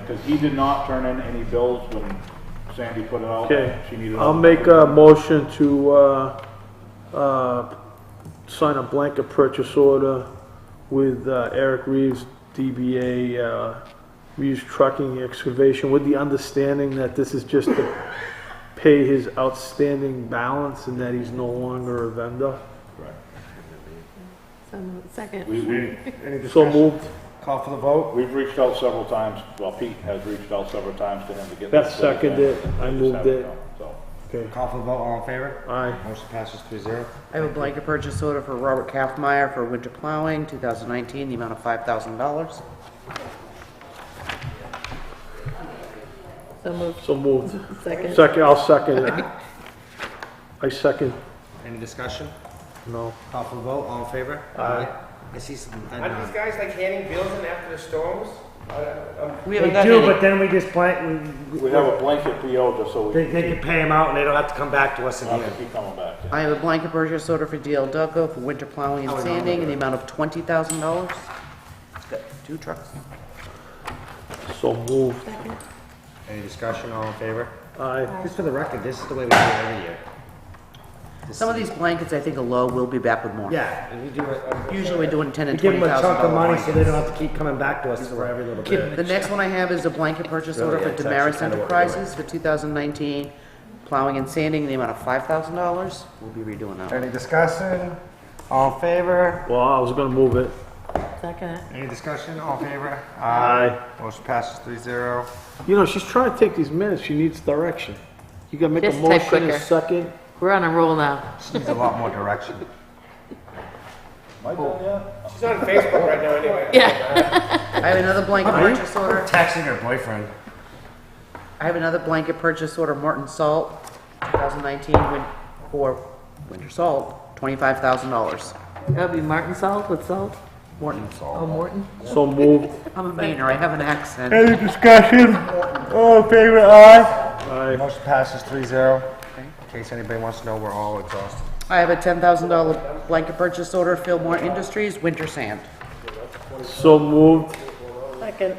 because he did not turn in any bills when Sandy put it out. Okay, She needed. I'll make uh, a motion to, uh, uh, sign a blanket purchase order with uh, Eric Reeves, DBA, uh, Reeves Trucking Excavation, with the understanding that this is just to pay his outstanding balance and that he's no longer a vendor. Right. So moved. Second. We, we, Any So discussion? moved. Call for the vote? we've reached out several times, well, Pete has reached out several times to him to get. Beth this thing seconded it. done. I They just moved haven't it. done, So, Okay, Call for the vote, all in favor? aye. Motion passes three zero. I have a blanket purchase order for Robert Kaffmeyer for winter plowing, 2019, the amount of $5,000. So moved. So moved. Second. Second, I'll second it. I second, Any discussion? no. Call for the vote, all in favor? Aye. I see some, I Aren't these know. guys like handing bills in after the storms? I- I'm We They haven't got do, any. but then we just blank, we, we have a blanket PO just so we they, they can pay them out and they don't have to come back to us in the don't end. have to keep coming back. I have a blanket purchase order for DL Duggo for winter plowing Oh, and sanding in the amount of $20,000. It's got Two trucks. So moved, Second. Any discussion, all in favor? aye. Just for the record, this is the way we do it every year. This Some of is- these blankets, I think, are low. We'll be back with more. Yeah, we do it, Usually we're doing 10 we and give $20,000 them a chunk of money so blankets. they don't have to keep coming back to us for every little The bit. next one I have is a blanket purchase order Really, for it's actually Damaris kinda what we're doing. Enterprises for 2019 plowing and sanding in the amount of $5,000. We'll be redoing that. Any discussion? All in favor? Well, I was gonna move it. Second. Any discussion, all in favor? Aye. Motion passes three zero. You know, she's trying to take these minutes, she needs direction. You gotta make a Just type motion in a quicker. second. We're on a roll now. She needs a lot more direction. Am I done yet? She's on Facebook right now anyway. I have another blanket purchase order. Texting her boyfriend. I have another blanket purchase order, Morton Salt, 2019, win- for winter salt, $25,000. That'd be Martin salt with salt. Morton salt. Oh, Morton. So moved, I'm a Mainer, I have an accent. Any discussion? All in favor, aye. aye. Motion passes three zero. In case anybody wants to know, we're all exhausted. I have a $10,000 blanket purchase order, Fillmore Industries, winter sand. So moved, Second.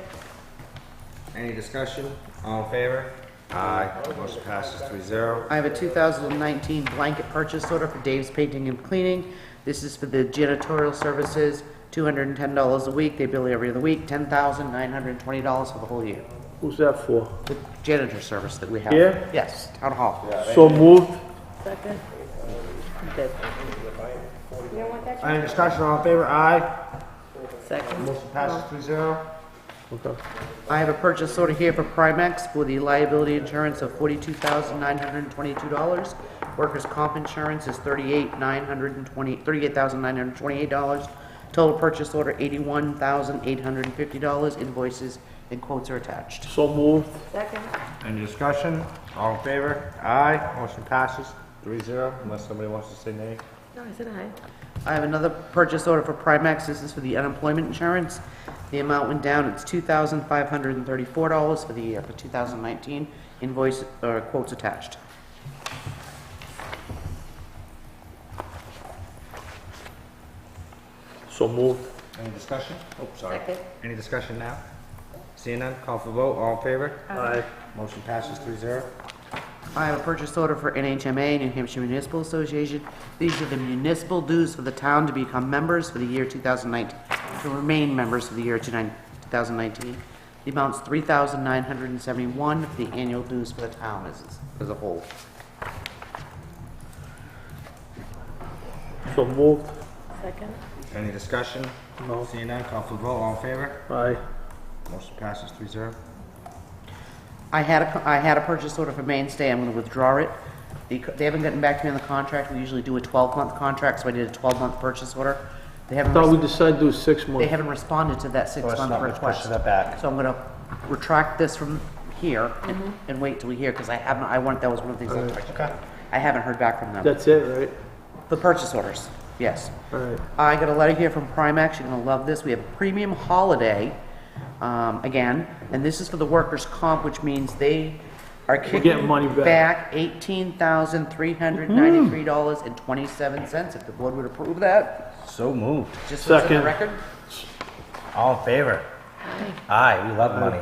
Any discussion? All in favor? Aye. Motion passes three zero. I have a 2019 blanket purchase order for Dave's Painting and Cleaning. This is for the janitorial services, $210 a week, they bill you every other week, $10,920 for the whole year. who's that for? The janitor service that we have. Yeah? Yes, town hall. So moved, Second. Good. Any discussion? All in favor? Aye. Second. Motion passes three zero. okay. I have a purchase order here for Primex for the liability insurance of $42,922. Workers' comp insurance is $38,920 $38,928. Total purchase order, $81,850. Invoices and quotes are attached. So moved, Second. Any discussion? All in favor? Aye. Motion passes three zero, unless somebody wants to say nay. No, I said aye. I have another purchase order for Primex. This is for the unemployment insurance. The amount went down. It's $2,534 for the year for 2019. Invoice, or quotes attached. so moved, Any discussion? Oh, sorry. Second. Any discussion now? Seeing none, call for vote. All in favor? aye. Motion passes three zero. I have a purchase order for NHMA, New Hampshire Municipal Association. These are the municipal dues for the town to become members for the year 2019, to remain members for the year 2019. The amount's 3971 for the annual dues for the town as, as a whole. So moved, Second. Any discussion? No. Seeing none, call for the vote. All in favor? aye. Motion passes three zero. I had a, I had a purchase order for Mainstay, I'm gonna withdraw it. They c- they haven't gotten back to me on the contract, we usually do a 12-month contract, so I did a 12-month purchase order. They haven't, Thought we res- decided to do six they months. haven't responded to that Let's six-month not request. request that back. So I'm gonna retract this from here and- and wait till we hear, because I haven't, I want, that was one of the Uh, things, I- Okay. I haven't heard back from them. That's it, right? The purchase orders, yes. Alright, I got a letter here from Primex, you're gonna love this, we have a premium holiday, um, again, and this is for the workers' comp, which means they are kicking money back. back eighteen thousand three hundred ninety-three dollars and twenty-seven cents, if the board would approve that, So moved. just for the Second. record. All in favor? Aye, we love money.